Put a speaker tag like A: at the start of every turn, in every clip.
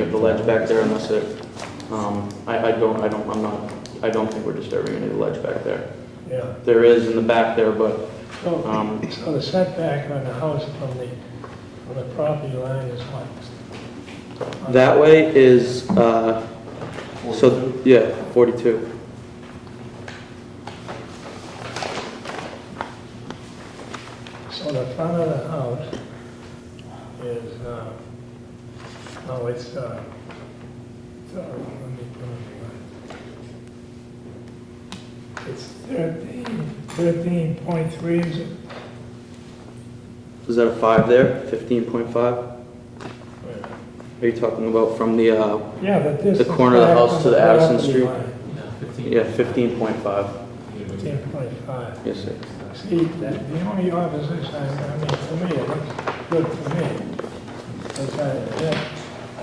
A: of the ledge back there unless it, um, I, I don't, I don't, I'm not, I don't think we're disturbing any of the ledge back there.
B: Yeah,
A: There is in the back there, but,
B: so,
A: um,
B: so the setback on the house from the, from the property line is what?
A: that way is, uh, so, yeah, 42.
B: So the front of the house is, uh, oh, it's, uh, so, let me put it right. It's thirteen, thirteen point three, is it?
A: Is that a five there? 15.5? Are you talking about from the, uh,
B: Yeah, but this.
A: The corner of the house to the Addison Street? yeah,
C: Yeah,
A: 15.5?
B: Ten point five.
A: Yes, sir.
B: See, that- the only opposition, I I mean, for me, it looks good for me. Is that, that-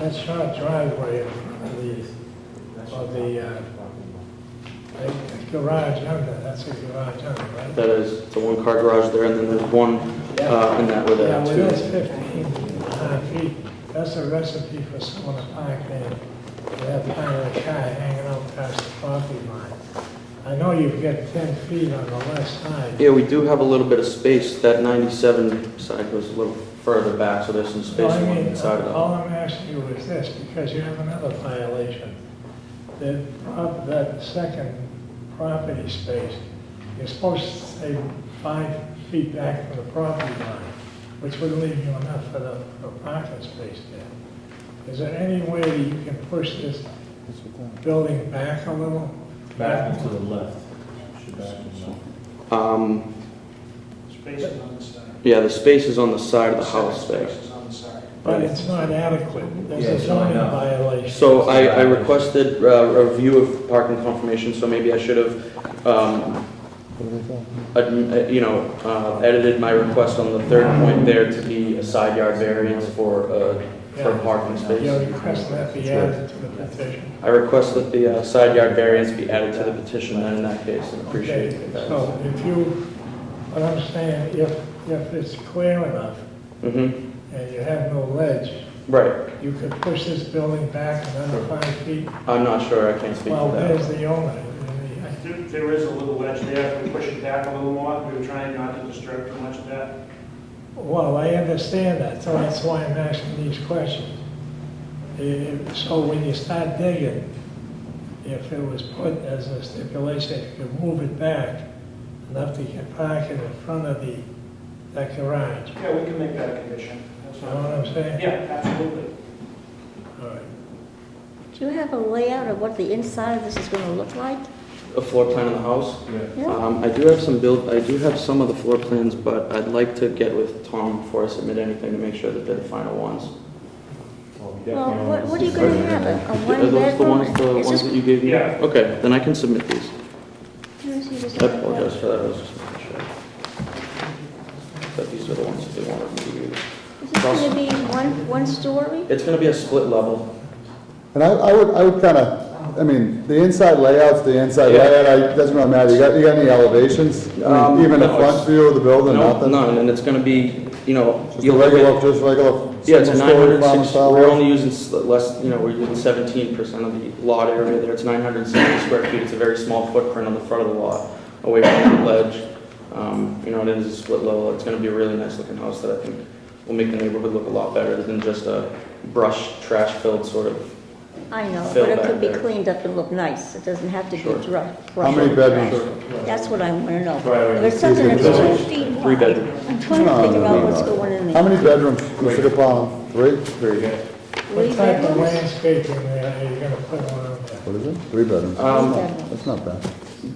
B: that short driveway in front of the, of the, uh, the garage under, that's a garage under, right?
A: That is, it's a one-car garage there, and then there's one uh, in that with
B: Yeah,
A: a
B: well,
A: two.
B: that's fifteen and a half feet, that's a recipe for someone to park there. They have kind of a car hanging out past the property line. I know you've got ten feet on the left side.
A: Yeah, we do have a little bit of space. That 97 side goes a little further back, so there's some
B: Well,
A: space
B: I
A: on
B: mean,
A: one side of
B: all I'm asking you is this, because you have another violation. That, prop- that second property space, you're supposed to stay five feet back from the property line, which would leave you enough for the for parking space there. Is there any way that you can push this building back a little?
C: Back and to the left. Should back and left.
A: it.
B: uh,
A: Um,
D: Spaces on the side.
A: Yeah, the space is on the side of the house there.
D: Spaces on the side.
B: But it's not adequate, there's
C: Yeah,
B: a
C: it's not
B: zoning
C: enough.
B: violation.
A: So I I requested uh, a review of parking confirmation, so maybe I should have, um, adm- uh, you know, uh, edited my request on the third point there to be a side yard variance for, uh, for
B: Yeah.
A: parking space.
B: You're requesting that be added to the petition.
A: I request that the uh, side yard variance be added to the petition then in that case, and appreciate
B: Okay,
A: that.
B: So if you, what I'm saying, if, if it's clear enough
A: hmm
B: and you have no ledge,
A: right.
B: you could push this building back another five feet.
A: I'm not sure, I can't speak
B: Well,
A: to
B: there's the owner. and the-
D: There- There is a little ledge there, if we push it back a little more, we were trying not to disturb too much of that.
B: Well, I understand that, so that's why I'm asking these questions. If- So when you start digging, if it was put as a stipulation, if you could move it back enough to get parking in front of the, that garage,
D: Yeah, we can make that a condition. That's
B: you know what
D: fine.
B: I'm saying?
D: Yeah, absolutely.
B: All right.
E: Do you have a layout of what the inside of this is going to look like?
A: that. A floor plan of the house?
C: Yeah.
E: Yeah.
A: Um, I do have some build, I do have some of the floor plans, but I'd like to get with Tom before I submit anything to make sure that they're the final ones.
E: Well, what what are you going to have, a- a
A: Are those the
E: one-bedroom?
A: ones, the
E: Is
A: ones
E: this-
A: that you gave me?
D: Yeah.
A: Okay, then I can submit these.
E: Let me see this
A: I
E: other one.
A: apologize for that, I was just making sure. But these are the ones that they wanted me to use.
E: Is this going to be one, one story?
A: It's gonna be a split level.
F: And I, I would, I would kind of, I mean, the inside layout's the inside
A: Yeah.
F: layout, I- doesn't really matter, you got, you got any elevations? I
A: Um,
F: mean, even the
A: no, it's-
F: front view of the building,
A: No,
F: nothing?
A: none, and it's gonna be, you know,
F: Just a
A: you'll look at
F: regular, just regular
A: Yeah, it's a
F: single-story farm
A: 906,
F: style?
A: we're only using s- less, you know, we're using 17% of the lot area there. It's 970 square feet, it's a very small footprint on the front of the lot, away from the ledge. Um, You know, it is a split level, it's going to be a really nice-looking house that I think will make the neighborhood look a lot better than just a brush, trash-filled sort of.
E: I know,
A: Fill
E: but it
A: back
E: could be
A: there.
E: cleaned up and look nice. It doesn't have to be
A: Sure.
E: rough.
F: How many bedrooms?
E: That's what I want to know.
C: Right, right.
E: If it's something that's
F: Three
E: two feet
A: Three
E: wide,
A: bedroom.
E: I'm trying to
F: No,
E: figure
F: no,
E: out
F: no,
E: what's
F: no.
E: going in
F: How
E: there.
F: many bedrooms, Mr. Capon, three? Three.
E: Three
B: What type of
E: bedrooms?
B: landscaping there are you gonna put on there?
F: What is it? Three bedrooms,
E: Three
A: Um,
E: bedrooms.
F: that's not bad.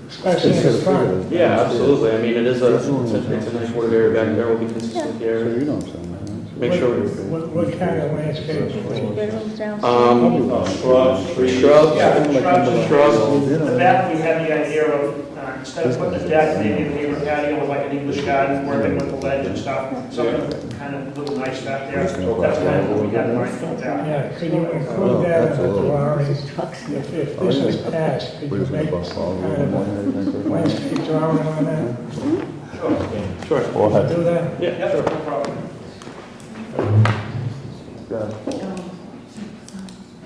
B: Especially in the front.
A: Yeah, absolutely, I mean, it is a, it's a it's a nice wooded area back there, will be consistent with the
F: So
A: area.
F: you know what I'm saying, right?
A: Make sure,
B: What-
A: we-
B: What, what kind of landscaping?
E: Two bedrooms
A: Um,
E: downstairs?
C: Shrubs, trees.
A: shrubs,
D: Yeah, shrubs.
A: shrubs,
F: You
D: The
F: know.
D: back, we had the idea of, uh, instead of putting a deck, maybe a neighbor patio with like an English garden, working with the ledge and stuff, something kind of little nice back there. That's kind of what we had in mind for that.
B: Yeah, could
A: Oh,
B: you include that in the
F: Absolutely.
B: drawings?
E: Trucks.
B: If, if this
A: Oh,
B: is passed, could
F: We're
B: you
F: just gonna
B: make
F: bust all
B: some
F: the way
B: kind
F: along
B: of
F: here, I think,
B: a
F: right?
B: landscape drawing on that?
A: sure,
F: Or
B: Do that?
A: yeah,
D: Yep, no problem.
F: Yeah.